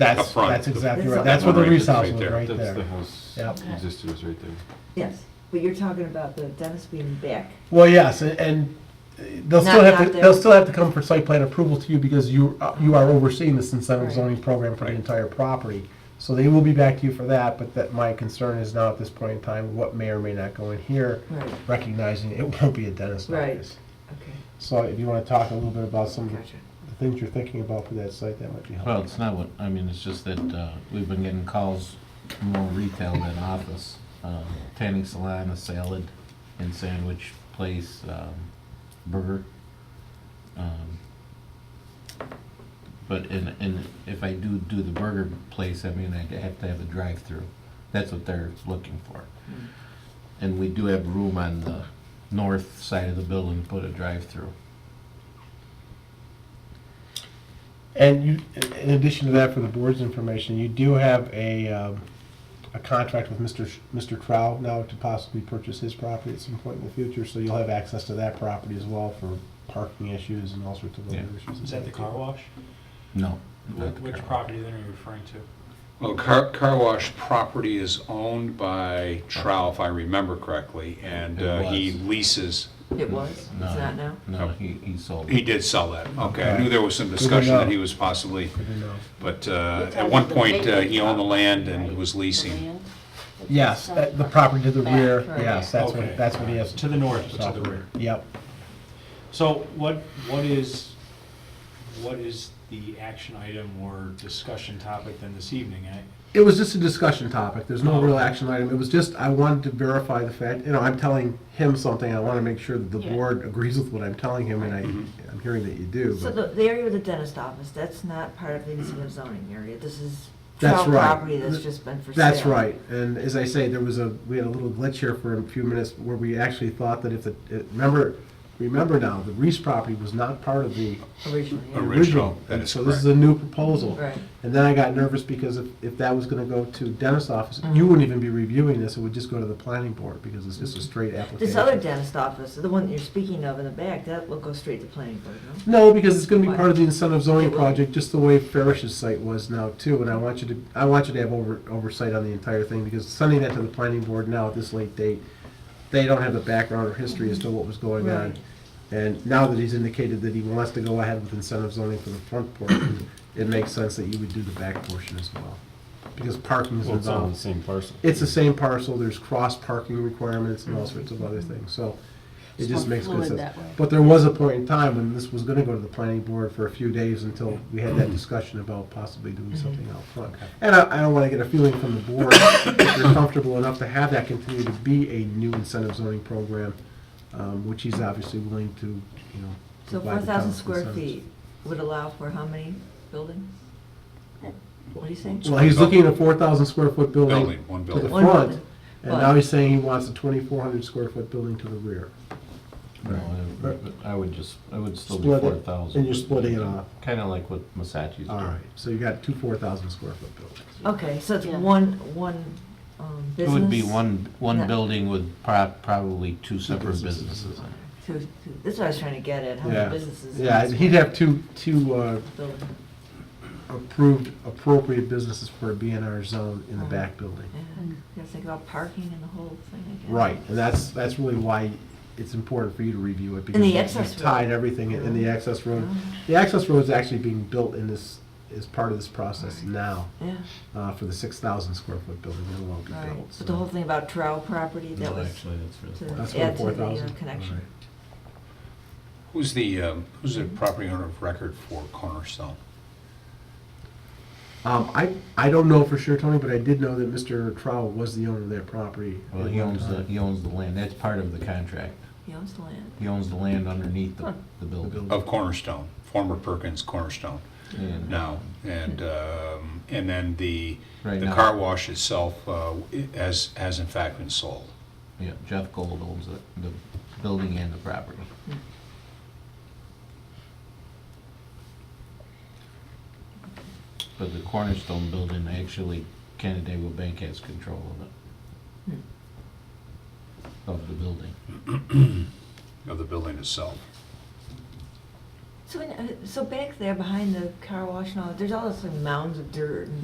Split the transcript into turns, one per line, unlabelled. That's,
Up front.
that's exactly
That's
right.
up
That's where the
front.
Reese house
Right
was,
there.
right
That's the
there.
house,
Yep.
existed was right there.
Yes, but you're talking about the dentist being back.
Well, yes, a- and they'll still
Not-
have to,
not there.
they'll still have to come for site plan approval to you because you, uh, you are overseeing this incentive
Right.
zoning program for the
Right.
entire property. So they will be back to you for that, but that my concern is now at this point in time, what may or may not go in here,
Right.
recognizing it won't be a dentist
Right.
office.
Okay,
So if you want to talk a little bit about some of
gotcha.
the things you're thinking about for that site, that might be
Well,
helpful.
it's not what, I mean, it's just that uh, we've been getting calls more retail than office. Uh, Tanning salon, a salad and sandwich place, um, burger. Um, But in, in, if I do do the burger place, I mean, I'd have to have a drive-through. That's what they're looking for. And we do have room on the north side of the building to put a drive-through.
And you, in addition to that, for the board's information, you do have a, um, a contract with Mr. Sh- Mr. Trow now to possibly purchase his property at some point in the future, so you'll have access to that property as well for parking issues and all sorts of other
Yeah.
issues.
Is that the car wash?
No. not the
Wh- Which
car.
property then are you referring to?
Well, car, car wash property is owned by Trow, if I remember correctly, and
It
uh, he
was.
leases,
It was, it's
No.
not now?
No, he, he sold it.
he did sell that. Okay, I
Okay.
knew there was some
to
discussion that
know.
he was possibly,
Good to know.
but uh,
You're
at one
talking
point,
the
uh, he owned the land
right?
and was
The
leasing.
land?
Yes, that- the property to the
Back,
rear,
right.
yes, that's what,
Okay.
that's what he has.
To the north, but to the rear.
Yep.
So what, what is, what is the action item or discussion topic then this evening? I-
It was just a discussion topic. There's no real action item. It was just, I wanted to verify the fact, you know, I'm telling him something, I want to make sure that the
Yeah.
board agrees with what I'm telling him, and I,
Mm-hmm.
I'm hearing that you do.
So
but-
the, the area with the dentist office, that's not part of the incentive zoning area. This is
That's
town
right.
property that's just been for sale.
That's right, and as I say, there was a, we had a little glitch here for a few minutes where we actually thought that if the, it- remember, remember now, the Reese property was not part of the
Originally, yeah.
Ori-
original.
That
and
is
So this is a new proposal.
Right.
And then I got nervous because if, if that was gonna go to dentist's office,
Mm-hmm.
you wouldn't even be reviewing this, it would just go to the planning board, because it's just a straight application.
This other dentist office, the one that you're speaking of in the back, that will go straight to planning board, no?
No, because it's gonna be
Why?
part of the incentive zoning
It will.
project, just the way Farish's site was now too, and I want you to, I want you to have over, oversight on the entire thing, because sending that to the planning board now at this late date, they don't have the background or history as to what was going on.
Right.
And now that he's indicated that he wants to go ahead with incentive zoning for the front portion, it makes sense that you would do the back portion as well, because parking is
Well, it's on the
involved.
same parcel.
It's the same parcel, there's cross parking requirements and all sorts of other things, so it
It's
just
more
makes good
fluid
sense.
that way.
But there was a point in time when this was gonna go to the planning board for a few days until we had that discussion about possibly doing something out front. And I, I don't wanna get a feeling from the board, if you're comfortable enough to have that continue to be a new incentive zoning program, um, which he's obviously willing to, you know.
So
provide
four
the town
thousand
with
square
incentives.
feet would allow for how many buildings? What do you say?
Well, he's looking at a four thousand square foot building
Building, one
to the
building.
One
front,
building.
and now he's saying he wants a twenty-four hundred square foot building to the rear.
No, I would- I would just, I would still be
Split it,
four thousand.
and you're splitting it off.
Kinda like what Masachi's
All right,
doing.
so you got two four thousand square foot buildings.
Okay, so it's
Yeah.
one, one, um,
It
business?
would be one,
Yeah.
one building with prob- probably two separate
businesses.
businesses. in it.
Two, two, this is what I was trying to get at, how
Yeah.
many businesses? in
Yeah,
this
he'd have two, two uh,
building?
approved appropriate businesses for a BNR zone in the back building.
Uh-huh. Yeah, you gotta think about parking and the whole thing again.
Right, and that's, that's really why it's important for you to review it.
the
because
access
you've Tied
road. Uh-huh.
everything in in the access road.
Yeah.
The access road is actually being built in this, is part of this process now
Yeah,
uh, for the six thousand square foot building that will be
right.
built.
But the whole thing about Trow property, that
No,
was
Actually, that's really.
to
four.
That's
add
what,
to
four
the uh,
thousand?
connection.
Who's the, um, who's the property owner of record for Cornerstone?
Um, I, I don't know for sure, Tony, but I did know that Mr. Trowell was the owner of that property.
Well, he owns the, he owns the land. That's part of the contract.
He owns the land.
He owns the land underneath the, the building.
Of Cornerstone, former Perkins Cornerstone
And
now. And, um, and then the,
Right
the
now.
car wash itself uh, i- has, has in fact been sold.
Yeah, Jeff Gold owns the, the building and the property. But the cornerstone building, actually, Canandaigua Bank has control of it. Of the building.
of the building itself.
So, in- uh, so back there behind the car wash and all, there's all those like, mounds of dirt and